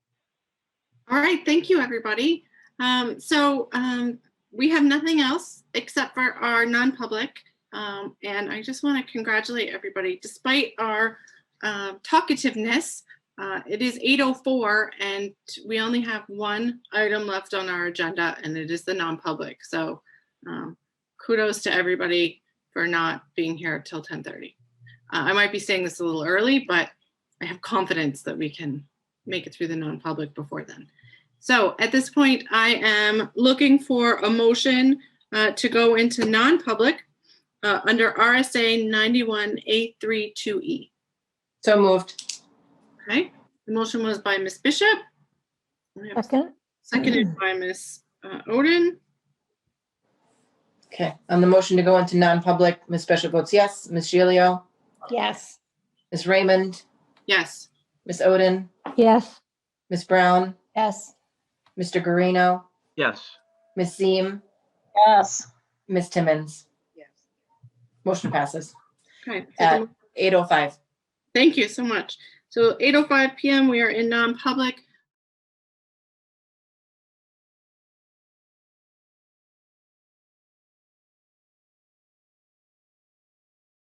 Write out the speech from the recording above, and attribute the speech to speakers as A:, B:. A: All right, thank you, everybody. Um, so, um, we have nothing else except for our non-public. Um, and I just want to congratulate everybody despite our, um talkativeness. Uh, it is eight oh four and we only have one item left on our agenda and it is the non-public. So, um, kudos to everybody for not being here till ten thirty. Uh, I might be saying this a little early, but I have confidence that we can make it through the non-public before then. So at this point, I am looking for a motion uh, to go into non-public uh, under RSA 91A32E.
B: So moved.
A: E. Okay, the motion was by Ms. Bishop. We have
C: Second?
A: Seconded by Ms. uh, Oden.
B: Okay, on the motion to go into non-public, Ms. Bishop votes yes. Ms. Gilio,
C: Yes.
B: Ms. Raymond,
A: Yes.
B: Ms. Oden,
C: Yes.
B: Ms. Brown,
C: Yes.
B: Mr. Guarino,
D: Yes.
B: Ms. Seem,
C: Yes.
B: Ms. Timmons. Motion passes. oh
A: Okay. so the
B: At 8:05.
A: Thank you so much. So 8:05 PM, we are in non-public.